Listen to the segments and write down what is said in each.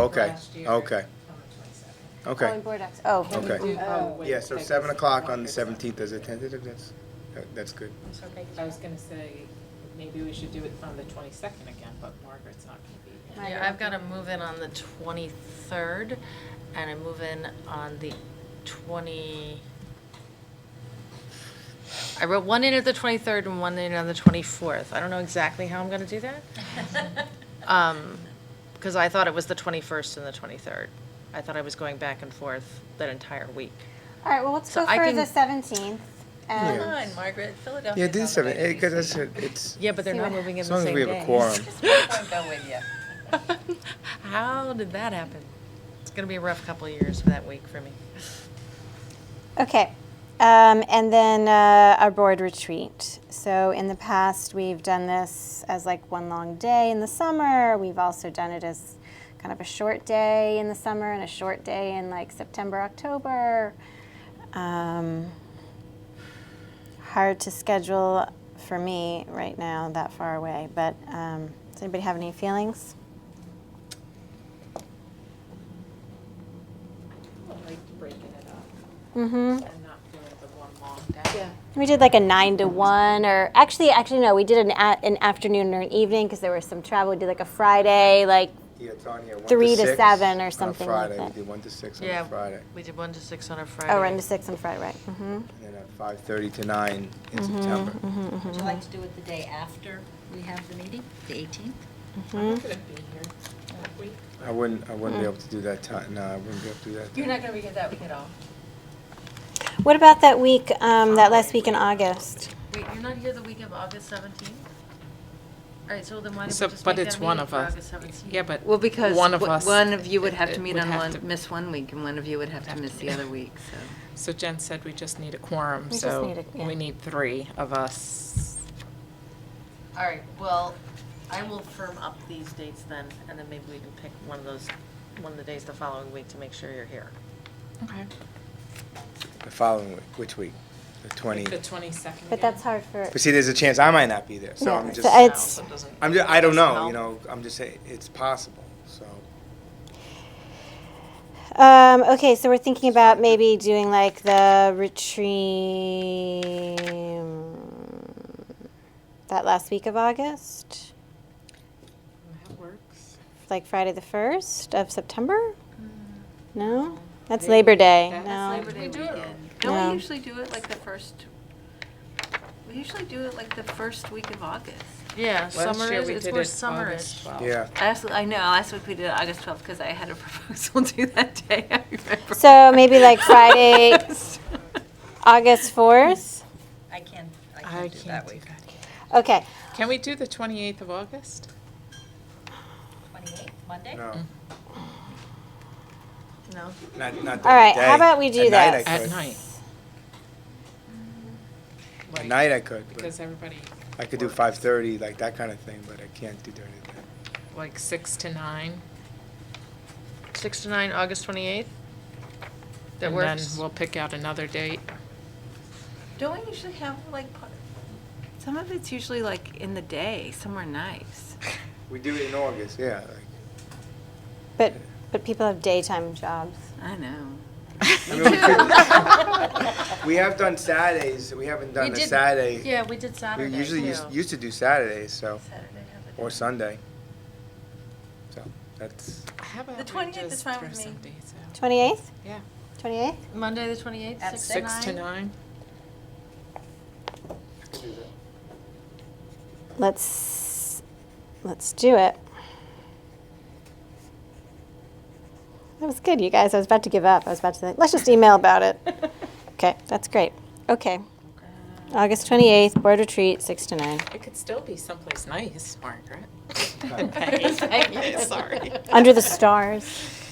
Okay, last year. okay, On the twenty-second. okay. Calling board action, oh. Okay. Do, oh, wait, Yeah, so I seven guess- o'clock on the seventeenth is a tentative, that's, that- that's good. I was gonna say, maybe we should do it on the twenty-second again, but Margaret's not gonna be here. Right. Yeah, I've got to move in on the 23rd, and I move in on the 20, I wrote one in at the 23rd and one in on the 24th. I don't know exactly how I'm going to do that. Um, Because I thought it was the 21st and the 23rd. I thought I was going back and forth that entire week. All right, well, let's So go I for can- the seventeenth. Yeah. Come on, Margaret, Philadelphia. Yeah, it is seven, because that's, a- it's, Yeah, but they're See not what- moving in as the long as same we day. have a quorum. Go with you. How did that happen? It's going to be a rough couple of years for that week for me. Okay, um, and then, uh, our board retreat. So in the past, we've done this as like one long day in the summer. We've also done it as kind of a short day in the summer and a short day in like September, October. Um, hard to schedule for me right now, that far away, but, um, does anybody have any feelings? I would like breaking it up Mm-hmm. and not doing the one long day. We did like a nine to one, or actually, actually no, we did an a- an afternoon or an evening because there was some travel. We did like a Friday, like oh, Yeah, Tanya, one Three to six seven or on a something like Friday, we that. did one to six on Yeah. a Friday, We did one to six on a Friday. oh, run to six on Friday, right? hmm and then at five thirty to nine in Mm-hmm. September. Would you like to do it the day after we have the meeting, the 18th? I'm Hmm? not gonna be here that week. I wouldn't, I wouldn't be Mm. able to do that time, no, I wouldn't be able to do that. You're time. not gonna be here that week at all. What about that week, um, that last week in August? Wait, you're not here the week of August 17th? All right, so then why don't we So, just but make it's that one meeting of for us. August 17th? Yeah, but Well, because one of w- us. one of you would have it- to meet would on have one, to- miss one week, and one of you would have to miss the other week, so. So Jen said we just need a quorum, We just need so a- yeah. we need three of us. All right, well, I will firm up these dates then, and then maybe we can pick one of those, one of the days the following week to make sure you're here. Okay. The following week, which week? The twenty, The twenty-second. But that's hard for. but see, there's a chance I might not be there, so Yeah, I'm so just, I- It's- No, so it doesn't- I'm just, I don't know, you Doesn't know, I'm just saying, it's possible, so. Um, okay, so we're thinking about maybe doing like the retreat that last week of August, That works. like Friday the first of September. No, that's Labor Day. Mm. That's no, Labor Day We do it. weekend. Don't Yeah. we usually do it like the first, we usually do it like the first week of August? Yeah, Last summer year is, we it's did more it summerish. August twelfth. Yeah, Last, I know, last week we did it August 12th, because I had a proposal due that day, I remember. So maybe like Friday, August 4th? I can, I I can't do that. Okay. Can we do the twenty-eighth of August? 28th, Monday? no, No, not, not All during right, the how day. about we do At night I this? At could. night, At night I could, but Mm. because everybody, I could do five thirty, like that kind of thing, but I can't do during the day. like, six to nine. six to nine, August 28th? That And works? then we'll pick out another date. Don't we usually have like, part- Some of it's usually like in the day, somewhere nice. We do it in August, yeah, like, But, but people have daytime jobs. I know. I mean, we could- We have done Saturdays, we haven't We done a did- Saturday. Yeah, we did We Saturday, usually used, too. used to do Saturdays, so, Saturday, have it. or Sunday. So, that's, How about The we 28th is just fine throw with me. some dates out? 28th? Yeah. 28th? Monday, the 28th, At six to Six to nine? nine? Let's, let's do it. That was good, you guys. I was about to give up. I was about to think, let's just email about it. Okay, that's great. Okay. August 28th, board retreat, 6 to 9. It could still be someplace nice, Margaret. Hey, Sorry. Under the stars.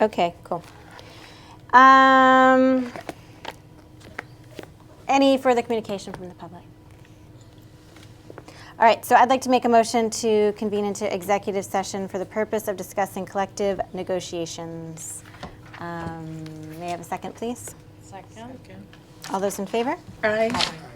Okay, cool. Um, any further communication from the public? All right, so I'd like to make a motion to convene into executive session for the purpose of discussing collective negotiations. Um, may I have a second, please? Second. All those in favor? Aye. all right.